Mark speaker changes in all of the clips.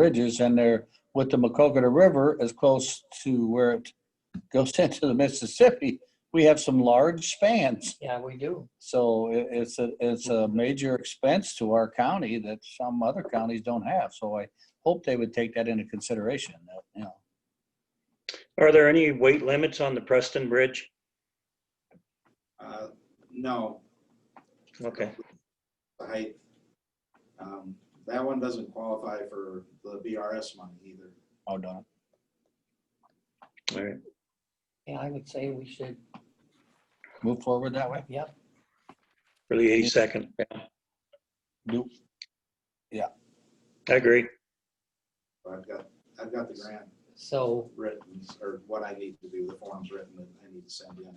Speaker 1: bridges and they're with the Macocata River as close to where it goes into the Mississippi, we have some large spans.
Speaker 2: Yeah, we do.
Speaker 1: So i- it's a, it's a major expense to our county that some other counties don't have. So I hope they would take that into consideration, that, you know.
Speaker 3: Are there any weight limits on the Preston Bridge?
Speaker 4: Uh, No,
Speaker 3: Okay,
Speaker 4: the height. Um, That one doesn't qualify for the BRS money either.
Speaker 1: Oh, darn.
Speaker 3: all right.
Speaker 2: Yeah, I would say we should,
Speaker 1: Move forward that way.
Speaker 2: yep.
Speaker 3: For the eighty-second,
Speaker 1: Do,
Speaker 3: I agree.
Speaker 4: But I've got, I've got the grant
Speaker 2: So,
Speaker 4: written, or what I need to do, the forms written that I need to send in.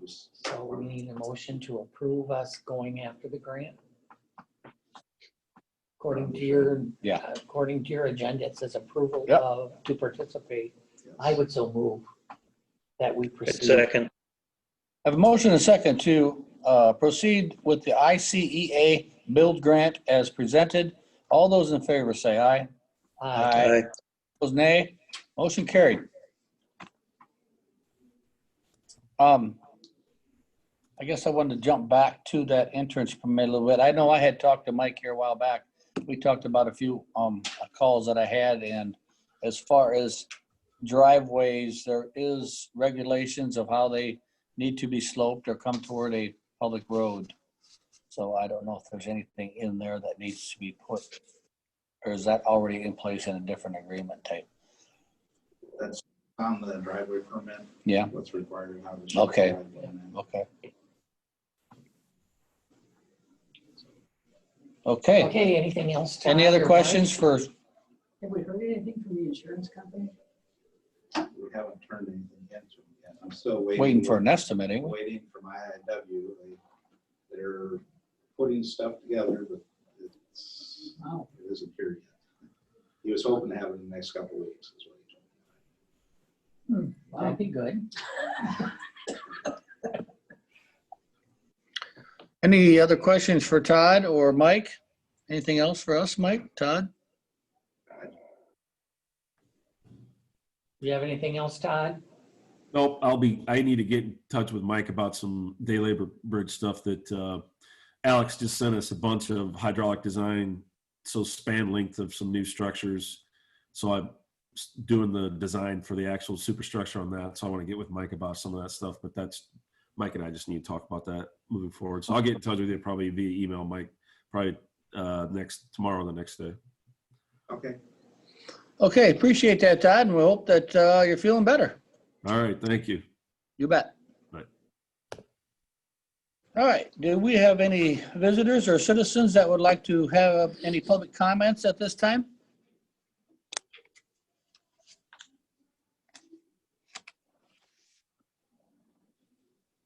Speaker 4: Just-
Speaker 2: so we need a motion to approve us going after the grant. According to your,
Speaker 1: Yeah.
Speaker 2: according to your agenda, it says approval
Speaker 1: Yep.
Speaker 2: of, to participate.
Speaker 4: yes.
Speaker 2: I would so move that we uh, proceed.
Speaker 3: Second,
Speaker 1: I have a motion and a second to uh, proceed with the ICEA build grant as presented. All those in favor say aye.
Speaker 2: Aye.
Speaker 3: aye.
Speaker 1: Those nay. Motion carried. Um, I guess I wanted to jump back to that entrance permit a little bit. I know I had talked to Mike here a while back. We talked about a few um, calls that I had and as far as driveways, there is regulations of how they need to be sloped or come toward a public road. So I don't know if there's anything in there that needs to be put or is that already in place in a different agreement type?
Speaker 4: That's on the driveway permit.
Speaker 1: Yeah.
Speaker 4: What's required. and how to shape the
Speaker 1: Okay.
Speaker 4: driveway and then-
Speaker 1: Okay. Okay,
Speaker 2: Okay, anything else? Todd,
Speaker 1: any
Speaker 2: or
Speaker 1: other
Speaker 2: Mike?
Speaker 1: questions for,
Speaker 5: Have we heard anything from the insurance company?
Speaker 4: We haven't turned anything in to them yet. I'm still waiting.
Speaker 1: waiting for an estimate anyway?
Speaker 4: Waiting for my IW. They're putting stuff together, but it's,
Speaker 5: Wow.
Speaker 4: it isn't here yet. He was hoping to have it in the next couple of weeks. is what he told me.
Speaker 2: That'd be good.
Speaker 1: Any other questions for Todd or Mike? Anything else for us, Mike, Todd?
Speaker 2: Do you have anything else, Todd?
Speaker 6: Nope, I'll be, I need to get in touch with Mike about some day labor bridge stuff that uh, Alex just sent us a bunch of hydraulic design, so span length of some new structures. So I'm s- doing the design for the actual superstructure on that. So I want to get with Mike about some of that stuff, but that's, Mike and I just need to talk about that moving forward. So I'll get in touch with you probably via email, Mike, probably uh, next, tomorrow, or the next day.
Speaker 4: Okay.
Speaker 1: Okay, appreciate that, Todd, and we hope that uh, you're feeling better.
Speaker 6: All right, thank you.
Speaker 1: You bet.
Speaker 6: Right.
Speaker 1: All right, do we have any visitors or citizens that would like to have any public comments at this time?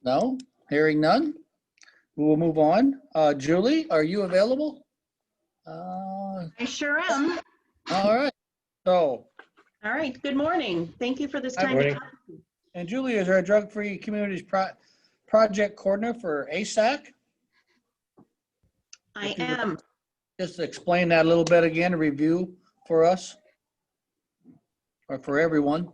Speaker 1: No, hearing none. We will move on. Uh, Julie, are you available? Uh,
Speaker 7: I sure am.
Speaker 1: All right, so,
Speaker 7: All right, good morning. Thank you for this
Speaker 1: Hi,
Speaker 7: time. to
Speaker 3: morning.
Speaker 7: talk.
Speaker 1: and Julie is our drug-free communities pro- project coordinator for ASAC.
Speaker 7: I
Speaker 1: Thank you.
Speaker 7: am.
Speaker 1: Just explain that a little bit again, review for us. Or for everyone.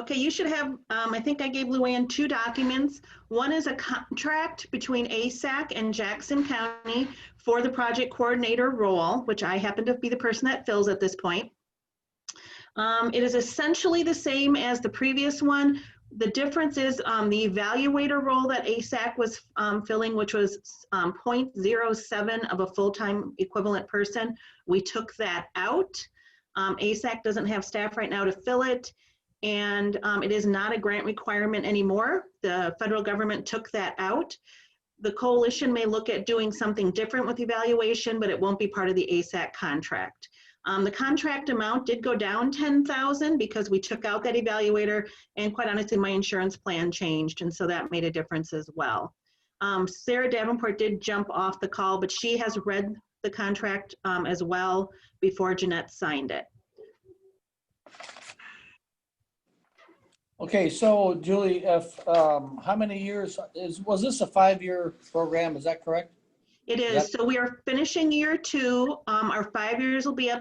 Speaker 7: Okay, you should have, um, I think I gave Luann two documents. One is a contract between ASAC and Jackson County for the project coordinator role, which I happen to be the person that fills at this point. Um, It is essentially the same as the previous one. The difference is um, the evaluator role that ASAC was um, filling, which was um, .07 of a full-time equivalent person. We took that out. Um, ASAC doesn't have staff right now to fill it. And um, it is not a grant requirement anymore. The federal government took that out. The coalition may look at doing something different with evaluation, but it won't be part of the ASAC contract. Um, the contract amount did go down 10,000 because we took out that evaluator and quite honestly, my insurance plan changed. And so that made a difference as well. Um, Sarah Davenport did jump off the call, but she has read the contract um, as well before Jeanette signed it.
Speaker 1: Okay, so Julie, if, um, how many years is, was this a five-year program? Is that correct?
Speaker 7: It
Speaker 1: Yep.
Speaker 7: is. So we are finishing year two. Um, our five years will be up